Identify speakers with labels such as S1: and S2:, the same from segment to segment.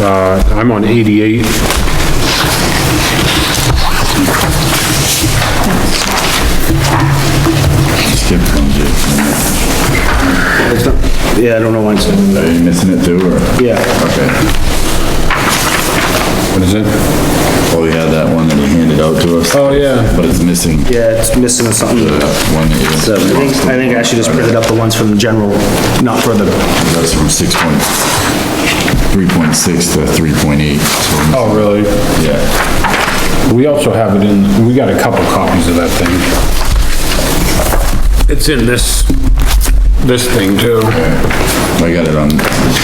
S1: uh,
S2: I'm on 88.
S3: Skip from Jason.
S2: It's not- Yeah, I don't know why it's,
S3: Are you missing it too, or?
S2: yeah.
S3: Okay. What is it? Oh, yeah, that one that he handed out to us.
S2: Oh, yeah.
S3: But it's missing the
S2: Yeah, it's missing something.
S3: one that
S2: I
S3: you.
S2: think, I think I should just print it up the ones from the general, not for the,
S3: That's from six point, three point six to three point eight.
S1: Oh, really?
S3: Yeah.
S1: We also have it in, we got a couple copies of that thing. It's in this, this thing too.
S3: I got it on,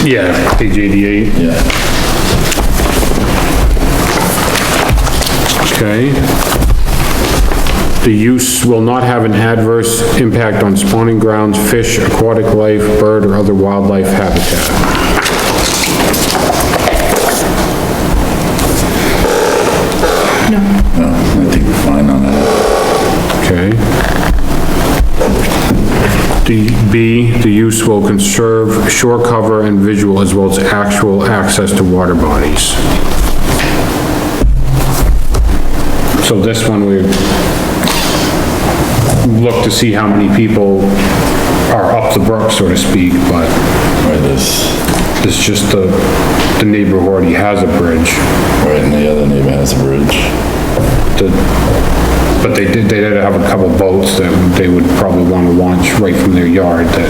S1: Yeah, page eighty-eight,
S3: yeah.
S1: okay. The use will not have an adverse impact on spawning grounds, fish, aquatic life, bird, or other wildlife habitat.
S3: No, Oh, I think we're fine on that.
S1: Okay. D, B, the use will conserve shore cover and visual as well as actual access to water bodies. So this one, we look to see how many people are up the brook, so to speak, but
S3: Right, this,
S1: it's just the, the neighbor who already has a bridge.
S3: right, and the other neighbor has a bridge.
S1: the- But they did, they did have a couple boats that they would probably want to launch right from their yard that,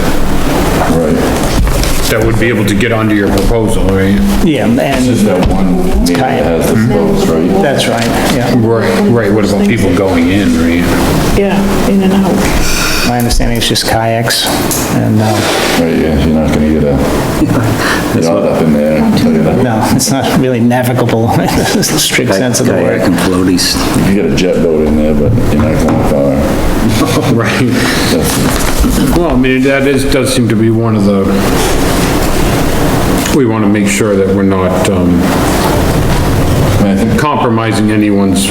S3: Right.
S1: that would be able to get onto your proposal, right?
S4: Yeah, and
S3: Just that one neighbor that has
S2: Mm-hmm.
S3: the boats, right?
S4: that's right, yeah.
S1: Right, right, what about people going in, right?
S5: Yeah, in and out.
S4: My understanding is just kayaks and, uh,
S3: Right, yeah, you're not gonna get a, get all up in there, I'll tell you that.
S4: no, it's not really navigable in the strict sense of the
S6: Kayak
S4: word.
S6: and floaties.
S3: You can get a jet boat in there, but you're not going far.
S1: Right,
S3: That's-
S1: well, I mean, that is, does seem to be one of the, we want to make sure that we're not, um,
S3: I mean, I think
S1: compromising anyone's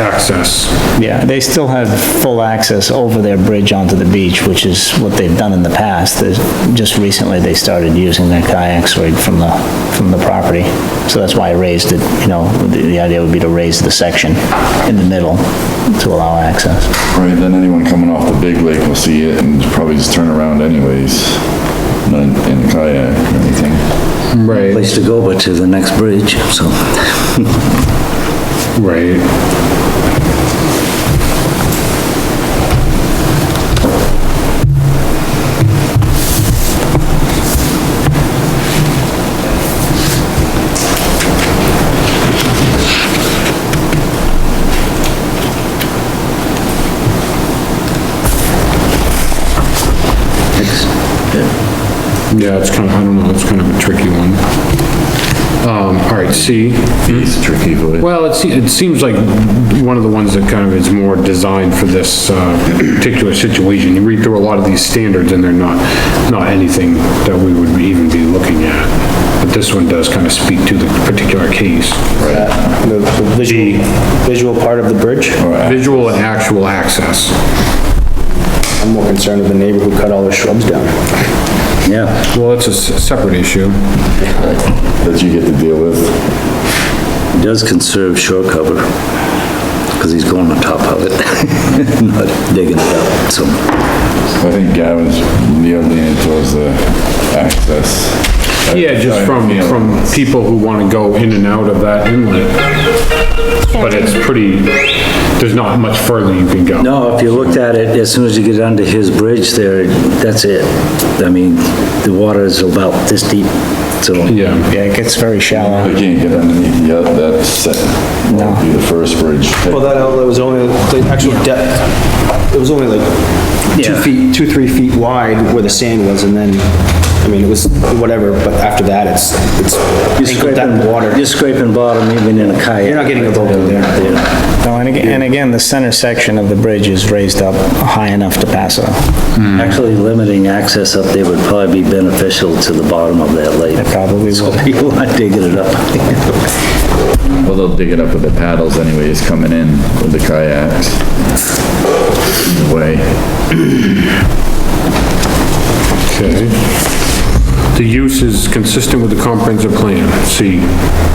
S1: access.
S4: Yeah, they still have full access over their bridge onto the beach, which is what they've done in the past. There's- Just recently, they started using their kayaks right from the, from the property. So that's why I raised it, you know, the, the idea would be to raise the section in the middle to allow access.
S3: Right, then anyone coming off the big lake will see it and probably just turn around anyways, not in a kayak or anything.
S1: Right.
S6: Place to go but to the next bridge, so.
S1: Right. Yeah, it's kind of, I don't know, it's kind of a tricky one. Um, all right, C.
S3: It's tricky, but
S1: Well, it seems, it seems like one of the ones that kind of is more designed for this, uh, particular situation. You read through a lot of these standards and they're not, not anything that we would even be looking at. But this one does kind of speak to the particular case.
S4: The visual, visual part of the bridge?
S1: Visual and actual access.
S4: I'm more concerned with the neighbor who cut all their shrubs down.
S6: Yeah,
S1: Well, it's a s- separate issue.
S3: that you get to deal with.
S6: he does conserve shore cover, because he's going on top of it, not digging it up, so.
S3: I think Gavin's nearly in towards the access.
S1: Yeah, just from, from people who want to go in and out of that inlet. But it's pretty, there's not much further you can go.
S6: No, if you looked at it, as soon as you get under his bridge there, that's it. I mean, the water is about this deep, so.
S1: Yeah.
S4: Yeah, it gets very shallow.
S3: You can't get underneath the other, that's, set. that'd be the first bridge.
S7: Well, that outlet was only, the actual depth, it was only like two
S6: Yeah.
S7: feet, two, three feet wide where the sand was, and then, I mean, it was whatever, but after that, it's, it's ankle depth water.
S6: You're scraping bottom even in a kayak.
S7: You're not getting a boat in there.
S4: No, and again, and again, the center section of the bridge is raised up high enough to pass a,
S6: Hmm. Actually limiting access up there would probably be beneficial to the bottom of that lake.
S4: probably will.
S6: People aren't digging it up.
S3: Well, they'll dig it up with the paddles anyways, coming in with the kayaks. Way.
S1: Okay. The use is consistent with the comprehensive plan, C.